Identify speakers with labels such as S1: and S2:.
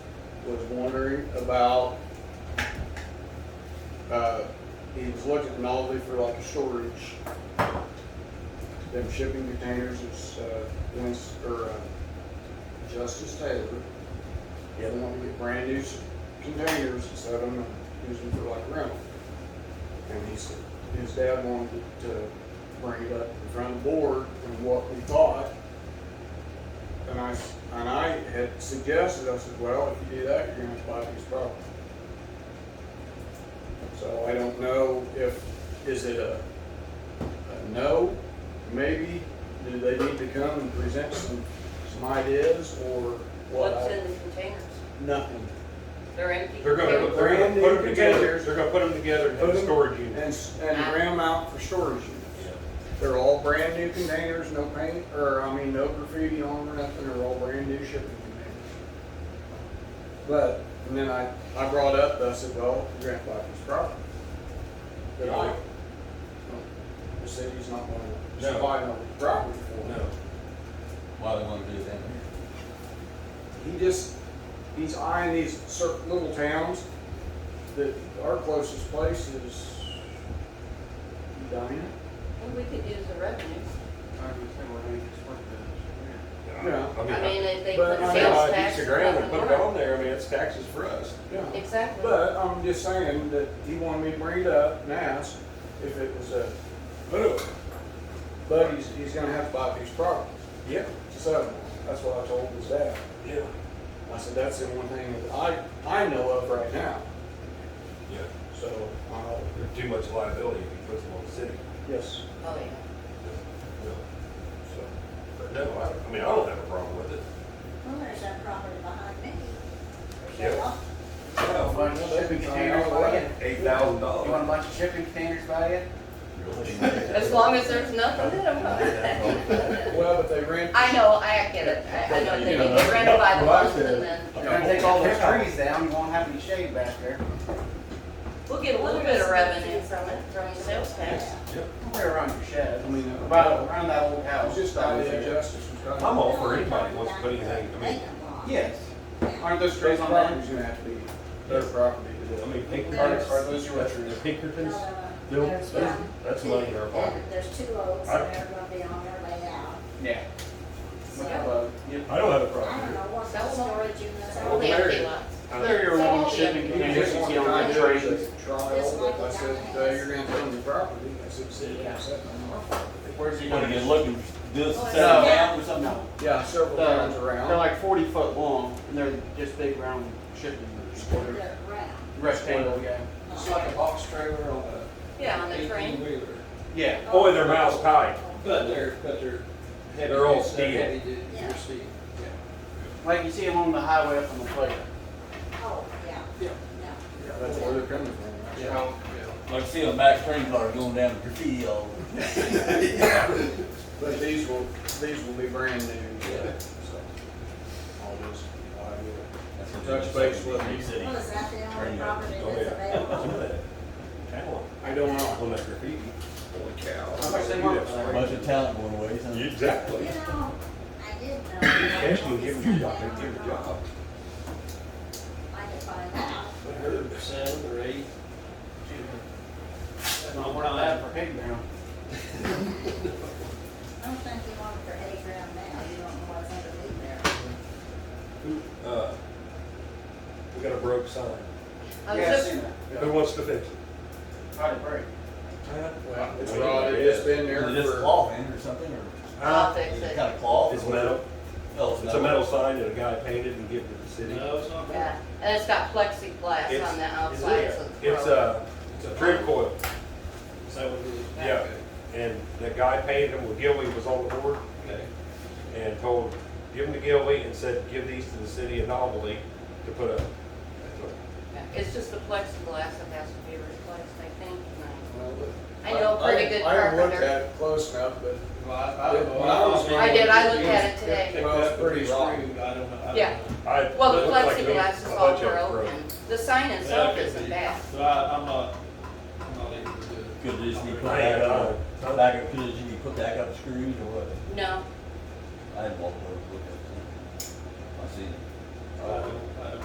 S1: was wondering about, uh, he was looking at all for like a storage. Them shipping containers, it's, uh, Wins, or, uh, Justice Taylor. He had wanted to get brand new s- containers and set them and use them for like rental. And he said, his dad wanted to bring it up in front of the board and what we thought. And I, s- and I had suggested, I said, well, if you do that, you're gonna have these problems. So I don't know if, is it a, a no, maybe, do they need to come and present some, some ideas or what?
S2: What's
S1: I-
S2: in the containers?
S1: Nothing.
S2: They're empty.
S3: They're gonna,
S2: containers.
S3: they're gonna put them together,
S1: Brand new
S3: they're gonna put them together and have
S1: Put
S3: a
S1: 'em
S3: storage
S1: And,
S3: unit.
S1: s- and ram out for storage units. They're all brand new containers, no paint, or I mean, no graffiti on them or nothing, they're all brand new shipping containers. But, and then I, I brought up, I said, well, your grandfather's property. That I, the city's not gonna
S3: No.
S1: buy no property for it.
S3: No,
S4: Why they wanna do that?
S1: He just, he's eyeing these certain little towns that our closest place is Edina.
S2: And we could use the revenue.
S1: Yeah.
S3: I mean,
S2: I mean, if they
S1: But
S2: put
S1: I-
S2: sales
S3: I,
S2: tax.
S3: piece of ground and
S2: nothing
S3: put it
S2: more.
S3: on there, I mean, it's taxes for us.
S1: Yeah,
S2: Exactly.
S1: but I'm just saying that he wanted me to bring it up and ask if it was a,
S3: Boom,
S1: but he's, he's gonna have to buy these properties.
S3: yeah,
S1: So, that's what I told his dad.
S3: yeah,
S1: I said, that's the only thing that I, I know of right now,
S3: yeah.
S1: so, uh,
S3: There's too much liability if you put them on the city.
S1: yes.
S2: Oh, yeah.
S3: No. So, But no, I, I mean, I don't have a problem with it.
S5: Well, there's that property behind me.
S3: Yeah.
S6: Well, bunch of shipping containers by you?
S3: Eight thousand
S6: You want a bunch of shipping containers by you?
S2: As long as there's nothing in them.
S1: Well, but they rent.
S2: I know, I get it. I, I know they need to rent by the month and then
S6: You're gonna take all those trees down, you won't have any shade back there.
S2: we'll get a little bit of revenue from it, from the sales tax.
S6: Right around your shed,
S1: I mean, uh,
S6: about around that old house.
S1: It's just the idea of justice was kind of.
S3: I'm all for anybody who wants to put anything, I mean,
S6: Yes. Aren't
S1: Those
S6: those trees on that?
S1: property's gonna have to be their property to do.
S3: I mean,
S6: Are
S3: Pinkerton's,
S6: are those your trees?
S3: the Pinkerton's, they'll-
S5: There's
S3: that's,
S5: one.
S3: that's money in our pocket.
S5: And There's two oaks
S3: I-
S5: and they're gonna be on their way out.
S6: Yeah.
S5: So, I
S1: But
S3: I don't have a
S5: don't
S3: problem.
S5: know what
S2: That was
S5: storage units
S2: All
S5: are.
S2: the
S5: there.
S2: empty lots.
S6: They're your
S2: Some
S6: own
S2: of the
S6: shipping
S2: empty
S1: I
S2: lots.
S6: containers,
S1: just
S6: you
S1: wanted
S6: see
S1: to
S6: on that
S1: try
S6: tree.
S1: to try all of it. I said, "Hey, you're gonna tell them the property, I said, "See, I'm setting them up."
S6: Where's he
S4: You wanna
S6: gonna
S4: get
S6: get?
S4: looking, do
S2: Oh,
S4: this,
S5: Well,
S4: set
S5: it's-
S4: up.
S6: No, something else.
S1: Yeah, several times
S6: They're
S1: around.
S6: they're like forty foot long, and they're just big round shipping containers.
S5: They're round.
S6: Rectangle, yeah.
S1: It's like a box trailer on a
S2: Yeah, on the
S1: eighteen
S2: train.
S1: wheeler.
S6: Yeah.
S3: Boy, they're miles high.
S1: But they're, but they're. heavy,
S3: They're all
S1: it's that
S3: steel.
S1: heavy duty, they're
S5: Yeah.
S1: steel, yeah.
S6: Like you see along the highway up on the plate.
S5: Oh, yeah.
S1: Yeah.
S5: No.
S1: Yeah, that's where they're coming from. right?
S6: Yeah.
S4: Like see a Mack train car going down the field.
S1: But these will, these will be brand new, yeah, so. All this, I will. Touch base with me.
S5: Well, is that the only
S4: Train
S5: property
S3: Go
S5: that's
S3: ahead. Some of
S5: available?
S3: that talent
S1: I don't know.
S3: on that graffiti. Holy cow.
S6: How much they want for that?
S4: Bunch of talent going away, huh?
S5: You
S3: Exactly.
S5: know, I did know.
S3: Cash can give them a job, they give them a job.
S5: I could find out.
S7: I heard seven or eight.
S6: No, we're not that for pig now.
S5: I don't think you want it for eight grand now, you don't know what's underneath there.
S3: Who, uh, we got a broke sign.
S2: I was
S6: Yeah, I've
S2: Oh, just,
S6: seen that.
S3: Who wants to fix it?
S6: Probably break.
S1: Well, it's rotted, it's been there
S4: Is this
S1: for,
S4: cloth in or something, or
S2: I'll
S3: Huh?
S2: fix
S4: is it
S2: it.
S4: kind of cloth? or
S3: It's
S4: what?
S3: metal.
S4: Oh,
S3: It's a metal sign that a guy painted and gave to the city.
S7: No, it's not bad.
S2: Yeah, and it's got plexiglass
S3: It's-
S2: on the outside. so
S3: It's uh, a, it's a trip coil,
S7: Is that what it is?
S3: yeah. And the guy painted them, well, Gilby was on the board
S7: Okay.
S3: and told, give them to Gilby and said, give these to the city of Novelty to put up.
S2: It's just the plexiglass that has to be replaced, I think.
S1: well, look,
S2: I know a pretty good
S1: I haven't looked
S2: carpenter.
S1: at it close enough, but
S7: Well, I, I don't know.
S1: When I was-
S2: I did, I looked at it today.
S7: Picked
S1: Well, it's
S7: up with
S1: pretty
S7: the rock.
S1: screwed.
S7: I don't know.
S3: Uh,
S7: I don't
S2: Yeah.
S7: know.
S3: I-
S2: Well,
S3: it
S2: the
S3: looked like me-
S2: plexiglass is
S3: a
S2: all
S3: bunch of it
S2: broken. The sign itself
S7: Yeah, it could
S2: isn't
S7: be.
S2: bad.
S7: So I, I'm not, I'm not able to do it.
S4: Could just be put
S3: I ain't
S4: back
S3: got
S4: up,
S3: time.
S4: put back up, could just be put back up screws or what?
S2: No,
S4: I had walked over, and looked at it. I seen it.
S7: I don't- I don't-